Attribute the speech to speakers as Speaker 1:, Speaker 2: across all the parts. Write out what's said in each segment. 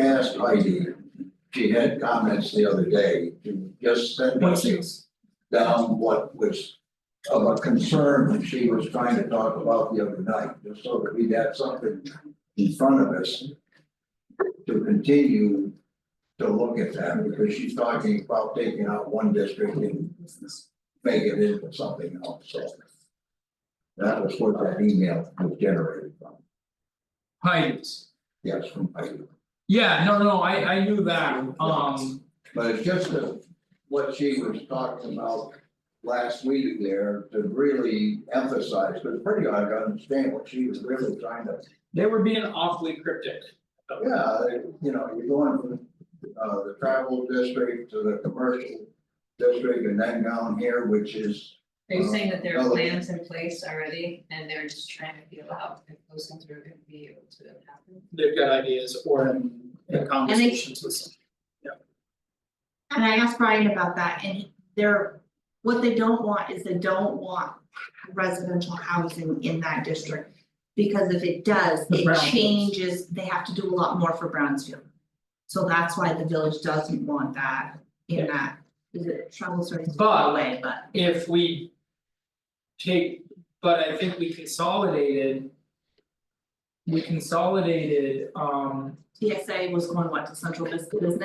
Speaker 1: asked Heidi, she had comments the other day, to just send us down what was of a concern that she was trying to talk about the other night, just so that we had something in front of us to continue to look at that, because she's talking about taking out one district and make it into something else, so. That was what that email was generated from,
Speaker 2: Heights.
Speaker 1: yes, from Heidi.
Speaker 2: Yeah, no, no, I I knew that, um,
Speaker 1: But it's just that what she was talking about last week there to really emphasize, but it's pretty hard to understand what she was really trying to.
Speaker 2: they were being awfully cryptic.
Speaker 1: Yeah, you know, you're going from uh the travel district to the commercial district and then down here, which is.
Speaker 3: Are you saying that there
Speaker 1: Uh,
Speaker 4: Oh.
Speaker 3: are
Speaker 1: no.
Speaker 3: plans in place already and they're just trying to feel out if those things are gonna be able to happen?
Speaker 2: They've got ideas or in in conversations with some.
Speaker 5: And I asked Brian about that and he- they're, what they don't want is they don't want residential housing in that district. Because if it does,
Speaker 2: The
Speaker 5: it
Speaker 2: brownfields.
Speaker 5: changes, they have to do a lot more for Brownsfield. So that's why the village doesn't want that in that, is it trouble starting to go
Speaker 2: But-
Speaker 5: away, but
Speaker 2: If we. Take, but I think we consolidated. We consolidated um
Speaker 5: TSA was going what to central bus- business,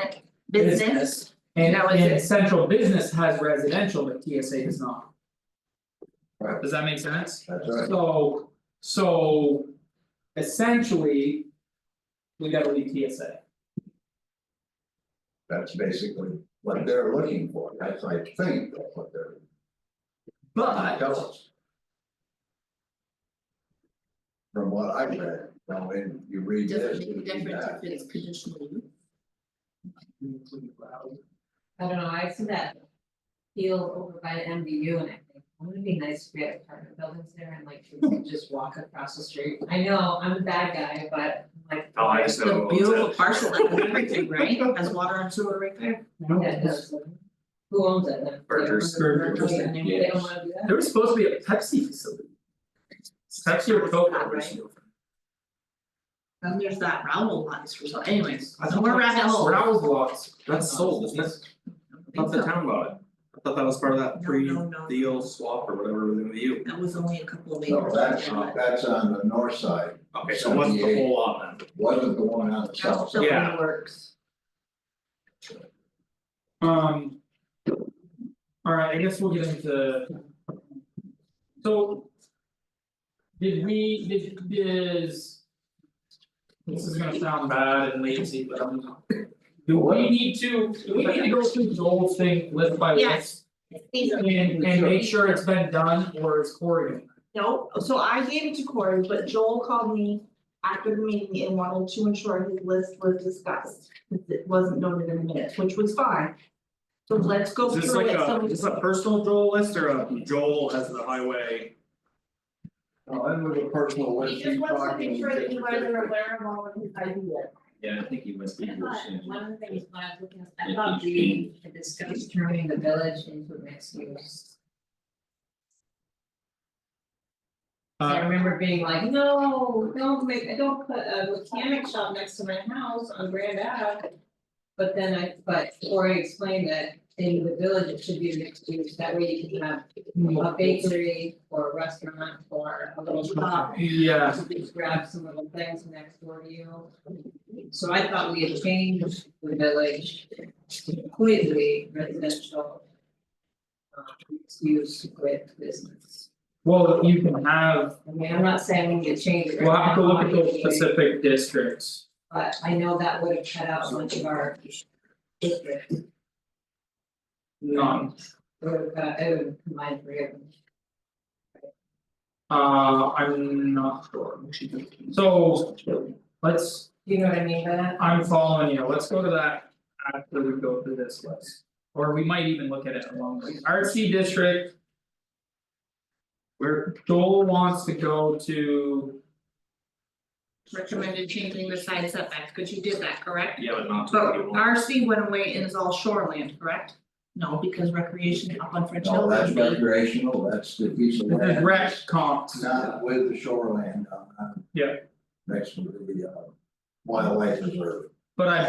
Speaker 5: business,
Speaker 2: business. And
Speaker 5: That was
Speaker 2: and
Speaker 5: it.
Speaker 2: central business has residential, but TSA does not.
Speaker 1: Right.
Speaker 2: Does that make sense?
Speaker 1: That's right.
Speaker 2: So, so essentially, we gotta leave TSA.
Speaker 1: That's basically what they're looking for. That's I think that's what they're
Speaker 2: But,
Speaker 1: trying to tell us. From what I read, now, and you read this,
Speaker 5: doesn't
Speaker 1: you
Speaker 5: make a
Speaker 1: read
Speaker 5: difference
Speaker 1: that.
Speaker 5: if it's conditional use.
Speaker 3: I don't know, I see that field over by MBU and I think, wouldn't it be nice if we had apartment buildings there and like you could just walk across the street? I know, I'm a bad guy, but I'm like.
Speaker 4: Oh, I just know.
Speaker 5: The beautiful parcel that has everything, right, has water and sewer right there.
Speaker 3: Yeah, it does. Who owns it then?
Speaker 4: Burgers.
Speaker 2: Burgers.
Speaker 3: Yeah, They don't wanna do that?
Speaker 2: There was supposed to be a Pepsi facility. Pepsi or Coke
Speaker 5: Right.
Speaker 2: originally.
Speaker 5: Then there's that Raoul lines or something, anyways,
Speaker 4: I thought
Speaker 5: we're
Speaker 4: that-
Speaker 5: rabbit hole.
Speaker 2: Browns lots.
Speaker 4: That's sold, isn't it?
Speaker 5: I don't
Speaker 4: Thought the
Speaker 5: think so.
Speaker 4: town bought it. I thought that was part of that
Speaker 5: No,
Speaker 4: free
Speaker 5: no, no.
Speaker 4: deal swap or whatever with MVU.
Speaker 5: That was only a couple of
Speaker 1: No,
Speaker 5: acres.
Speaker 1: that's that's on the north side,
Speaker 4: Okay, so what's the whole lot then?
Speaker 1: wasn't the one on the
Speaker 5: That's
Speaker 1: south
Speaker 5: still
Speaker 1: side.
Speaker 5: in
Speaker 4: Yeah.
Speaker 5: works.
Speaker 2: Um. Alright, I guess we'll get into. So. Did we, did, is. This is gonna sound bad and lazy, but I'm not. Do we need to, do we need to go through the whole thing list by list?
Speaker 5: Yes. These are-
Speaker 2: And and make sure it's been done or is Cory doing it?
Speaker 5: No, so I gave it to Corey, but Joel called me after the meeting and wanted to ensure his list was discussed. since It wasn't noted in the minutes, which was fine. So let's go
Speaker 4: Is this
Speaker 5: through
Speaker 4: like
Speaker 5: it,
Speaker 4: a,
Speaker 5: so
Speaker 4: is this a personal Joel list or a Joel as the highway?
Speaker 1: No, that was a personal
Speaker 5: we.
Speaker 1: list,
Speaker 5: He
Speaker 1: she's
Speaker 5: just wants to
Speaker 1: talking.
Speaker 5: make sure that you guys are aware of all of his ideas.
Speaker 6: Yeah, I think he must be.
Speaker 3: I thought, one of the things when I was looking at, I
Speaker 6: Yeah,
Speaker 3: thought
Speaker 6: you
Speaker 3: we had discussed turning the village into a mixed use. I
Speaker 2: Uh,
Speaker 3: remember being like, no, don't make, don't put a mechanic shop next to my house on Grand Ave. But then I, but Cory explained that in the village, it should be mixed use, that way you can have a bakery or a restaurant or a little shop.
Speaker 2: yeah,
Speaker 3: Just grab some little things next door to you. So I thought we had changed the village completely residential. Um, use with business.
Speaker 2: well, you can have,
Speaker 3: I mean, I'm not saying we need to change it. right
Speaker 2: we'll have to
Speaker 3: now,
Speaker 2: look at those
Speaker 3: obviously,
Speaker 2: specific districts.
Speaker 3: But I know that would have cut out much of our. district.
Speaker 2: Um,
Speaker 3: It would have cut- it would have combined three of them.
Speaker 2: Uh, I'm not sure, so, let's,
Speaker 3: Do you know what I mean by that?
Speaker 2: I'm following you, let's go to that after we go through this list. Or we might even look at it along the way, RC district. Where Joel wants to go to,
Speaker 5: Recommended changing the side setbacks, because you did that, correct?
Speaker 4: Yeah, but not
Speaker 5: But
Speaker 4: to people.
Speaker 5: RC went away and is all shoreland, correct? No, because recreation up on French
Speaker 1: No,
Speaker 5: Hill.
Speaker 1: that's
Speaker 5: would be-
Speaker 1: recreational, that's the piece of
Speaker 2: the
Speaker 1: land,
Speaker 2: rec comps.
Speaker 1: not with the shoreland, uh, uh,
Speaker 2: Yeah.
Speaker 1: Next to the uh wildlife reserve.
Speaker 2: But I